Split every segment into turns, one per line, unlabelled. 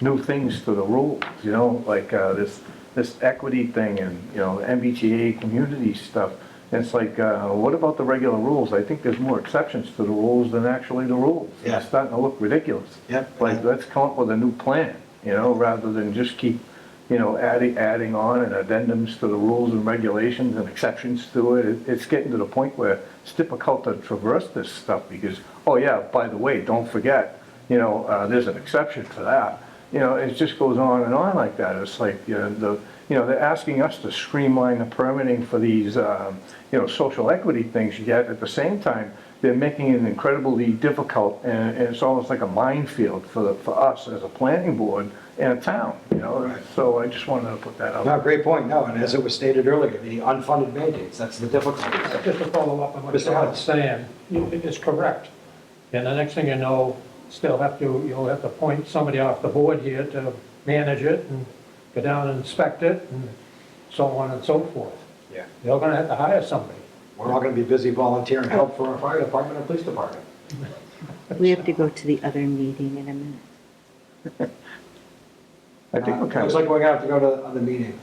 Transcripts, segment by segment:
new things to the rules, you know, like, uh, this, this equity thing and, you know, MBTA community stuff. And It's like, uh, what about the regular rules? I think there's more exceptions to the rules than actually the rules.
Yeah.
It's starting to look ridiculous.
Yep.
Like, let's come up with a new plan, you know, rather than just keep, you know, adding, adding on and addendums to the rules and regulations and exceptions to it. It- It's getting to the point where it's difficult to traverse this stuff because, oh yeah, by the way, don't forget, you know, uh, there's an exception for that. You know, it just goes on and on like that. It's like, you know, the, you know, they're asking us to streamline the permitting for these, um, you know, social equity things, yet at the same time, they're making it incredibly difficult, and, and it's almost like a minefield for, the- for us as a planning board and a town, you know? So I just wanted to put that out.
No, great point, no, and as it was stated earlier, the unfunded mandates, that's the difficulty.
Just to follow up on what
Mr.
John
Hunt.
is saying, you- it is correct. And the next thing you know, still have to, you'll have to point somebody off the board here to manage it and go down and inspect it and so on and so forth.
Yeah.
You're gonna have to hire somebody.
We're all gonna be busy volunteering help for our fire department and police department.
We have to go to the other meeting in a minute.
I think we're
Uh,
kind
Looks like
of,
we're gonna have to go to the other meeting.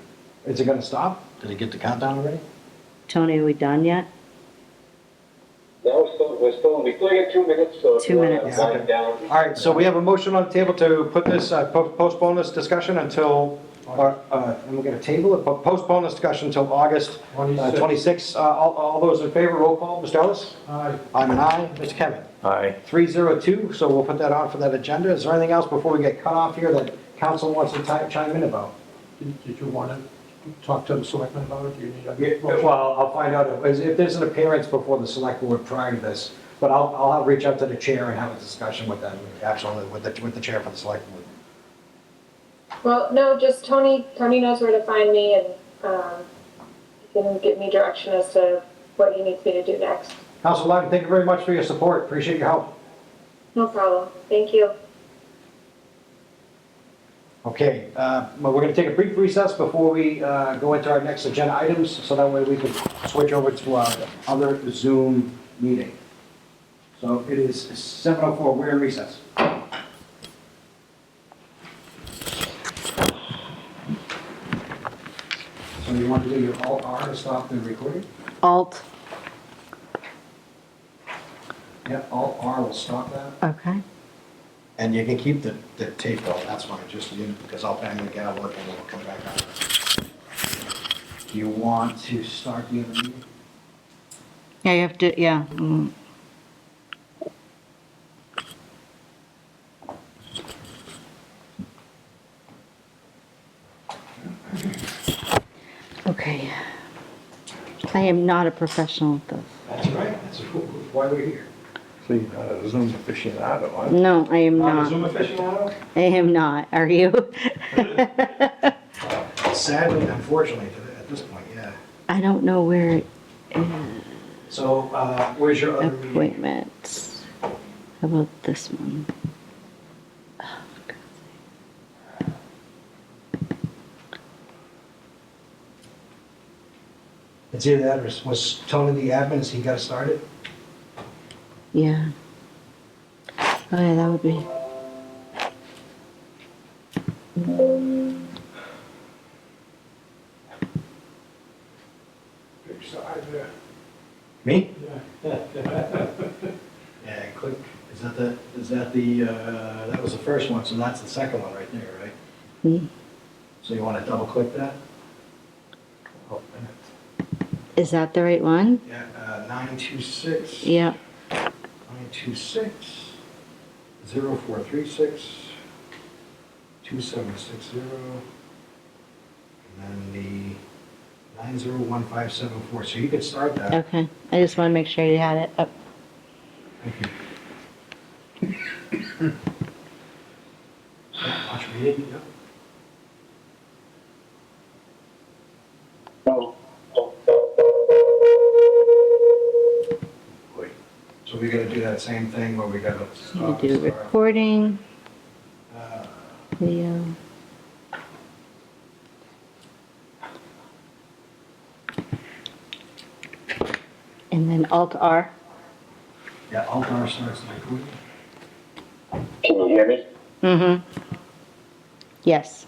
Is it gonna stop? Did it get the countdown already?
Tony, are we done yet?
No, we're still, we're still, we still got two minutes, so. if
Two
you wanna
minutes.
wind down.
All right, so we have a motion on the table to put this, uh, po- postpone this discussion until, or, uh, and we're gonna table it, but postpone this discussion until August uh,
26.
26. Uh, All all those in favor, roll call, Mr. Ellis?
Aye.
I'm an aye, Mr. Kevin?
aye.
302, so we'll put that on for that agenda. Is there anything else before we get cut off here that council wants to ti- chime in about?
Did did you want to talk to the selectmen about it? Do you need a
Yeah,
motion?
Well, I'll find out if if there's an appearance before the select board prior to this, but I'll, I'll have- reach out to the chair and have a discussion with them, absolutely, with the, with the chair for the select board.
Well, no, just Tony, Tony knows where to find me and, um, he can give me direction as to what he needs me to do next.
Council Lyman, thank you very much for your support. Appreciate your help.
No problem. Thank you.
Okay, uh, well, we're going to take a brief recess before we uh, go into our next agenda items, so that way we can switch over to our other Zoom meeting. So it is 7:04, we're in recess. So you want to do your alt R to stop the recording?
Alt,
Yeah, alt R will stop that.
okay.
And you can keep the, the tape though, that's fine, just, you know, because I'll bang the gavel and then we'll come back on. Do you want to start the other meeting?
Yeah, you have to, yeah. mm. Okay. I am not a professional at this.
That's right, that's why we're here.
See, not a uh, Zoom aficionado, huh?
No, I am
Not a
not.
Zoom aficionado?
I am not. Are you?
Sadly, unfortunately, to the- at this point, yeah.
I don't know where it
So, uh, where's your other meeting?
appointments. How about this one? Oh, God.
It's either that or was Tony the admin, is he got started?
Yeah. Oh yeah, that would be.
Me? Yeah, click, is that the, is that the, uh, that was the first one, so that's the second one right there, right?
Hmm.
So you wanna double click that? Oh,
Is that the right one?
Yeah, uh, 926.
Yeah.
926, 0436, 2760, and then the 901574. So you could start that.
Okay. I just want to make sure you had it up.
Watch reading, yep.
Boy,
So we gotta do that same thing where we gotta
You
stop
do
and start.
recording,
Uh,
video. And then Alt R.
Yeah, Altar starts like,
Can you hear me?
Mm-hmm. Yes.